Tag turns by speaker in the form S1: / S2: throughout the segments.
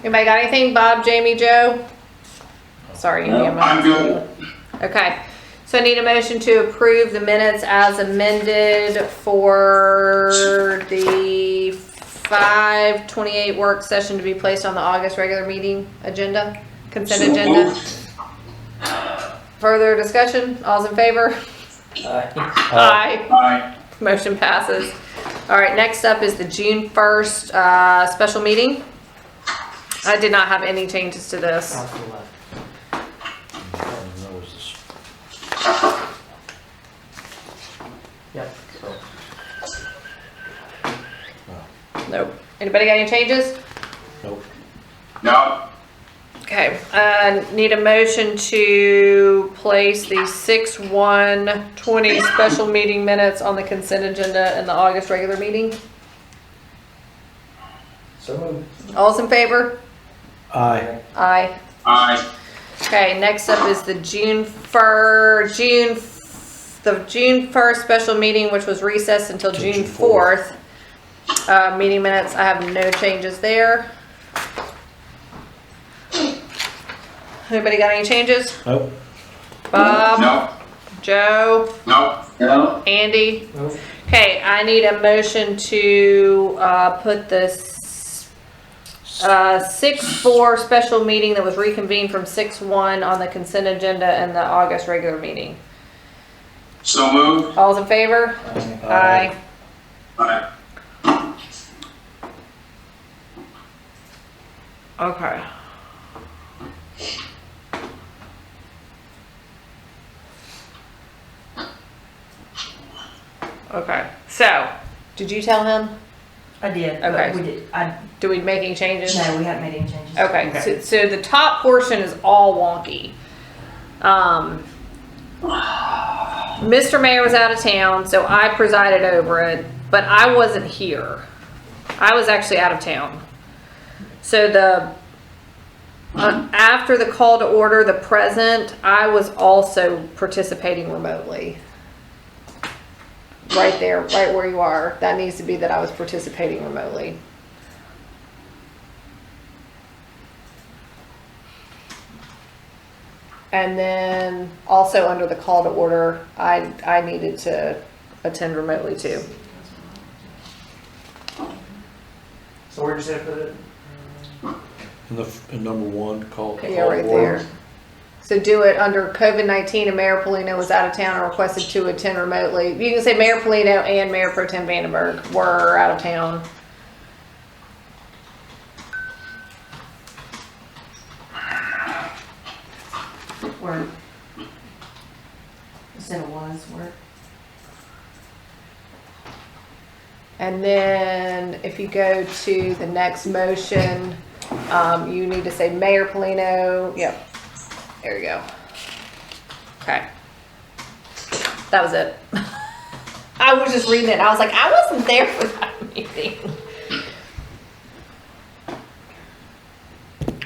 S1: Anybody got anything? Bob, Jamie, Joe? Sorry, you
S2: No,
S1: need a moment.
S3: I'm good.
S1: Okay, so I need a motion to approve the minutes as amended for the five twenty-eight work session to be placed on the August regular meeting agenda, consent
S3: So
S1: agenda.
S3: moved.
S1: Further discussion? All's in favor? Aye.
S3: Aye.
S1: Motion passes. All right, next up is the June first, uh, special meeting. I did not have any changes to this.
S2: That was the s-
S4: Yep, so,
S1: Nope. Anybody got any changes?
S2: Nope.
S3: No,
S1: Okay, uh, need a motion to place the six one twenty special meeting minutes on the consent agenda and the August regular meeting.
S4: so moved.
S1: All's in favor?
S2: Aye.
S1: Aye.
S3: aye.
S1: Okay, next up is the June fir, June, f- the June first special meeting, which was recessed until
S2: Till
S1: June
S2: June 4th.
S1: fourth. Uh, meeting minutes, I have no changes there. Anybody got any changes?
S2: Nope.
S1: Bob,
S3: No,
S1: Joe,
S3: no. No.
S1: Andy?
S4: Nope.
S1: Okay, I need a motion to, uh, put this, uh, six, four special meeting that was reconvened from six, one on the consent agenda and the August regular meeting.
S3: So moved.
S1: All's in favor?
S4: Aye.
S1: Aye.
S3: Aye.
S1: Okay. Okay, so, did you tell him?
S5: I did, but
S1: Okay.
S5: we did, I,
S1: Do we make any changes?
S5: no, we haven't made any changes.
S1: Okay, so, so the top portion is all wonky. Um, Mr. Mayor was out of town, so I presided over it, but I wasn't here. I was actually out of town. So the, uh, after the call to order, the present, I was also participating remotely. Right there, right where you are, that needs to be that I was participating remotely. And then also under the call to order, I, I needed to attend remotely too.
S4: So where'd you say put it?
S2: And the, f- and number one, call.
S1: Yeah,
S2: call
S1: right
S2: order.
S1: there. So do it under COVID-19 and Mayor Polino was out of town and requested to attend remotely. You can say Mayor Polino and Mayor Pro Tem Vandenberg were out of town.
S5: Word. Instead of was, word.
S1: And then if you go to the next motion, um, you need to say Mayor Polino, yep, there you go. Okay. That was it. I was just reading it, I was like, I wasn't there for that meeting.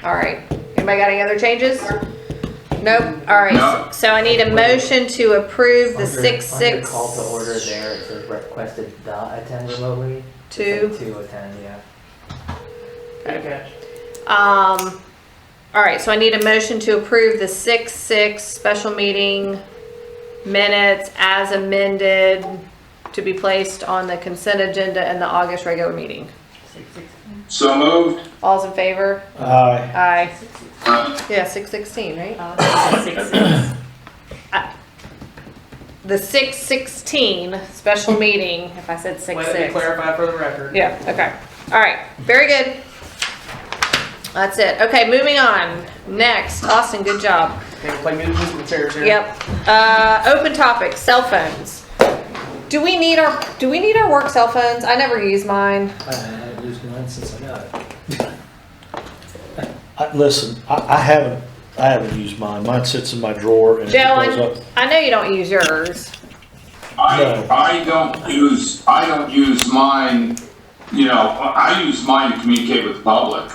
S1: All right, anybody got any other changes? Nope, all
S3: No.
S1: right, so I need a motion to approve the
S4: Under-
S1: six,
S4: Under
S1: six,
S4: call to order there, it says requested the attend remotely.
S1: two.
S4: It's like To attend, yeah.
S1: Um, all right, so I need a motion to approve the six, six special meeting minutes as amended to be placed on the consent agenda and the August regular meeting.
S5: Six, six,
S3: So moved.
S1: All's in favor?
S2: Aye.
S1: Aye.
S5: six, six,
S3: Aye.
S1: Yeah, six sixteen, right? Uh,
S5: uh, six, six.
S1: The six sixteen special meeting, if I said six,
S4: Let it be
S1: six.
S4: clarified for the record.
S1: Yeah, okay. All right, very good. That's it. Okay, moving on. Next, Austin, good job.
S4: Can we play music from the chairs here?
S1: Yep. Uh, open topic, cell phones. Do we need our, do we need our work cell phones? I never use mine.
S6: I haven't used mine since I got it.
S2: I- Listen, I, I haven't, I haven't used mine. Mine sits in my drawer and it
S1: Joe,
S2: goes
S1: I,
S2: up.
S1: I know you don't use yours.
S3: I,
S2: No.
S3: I don't use, I don't use mine, you know, I I use mine to communicate with the public.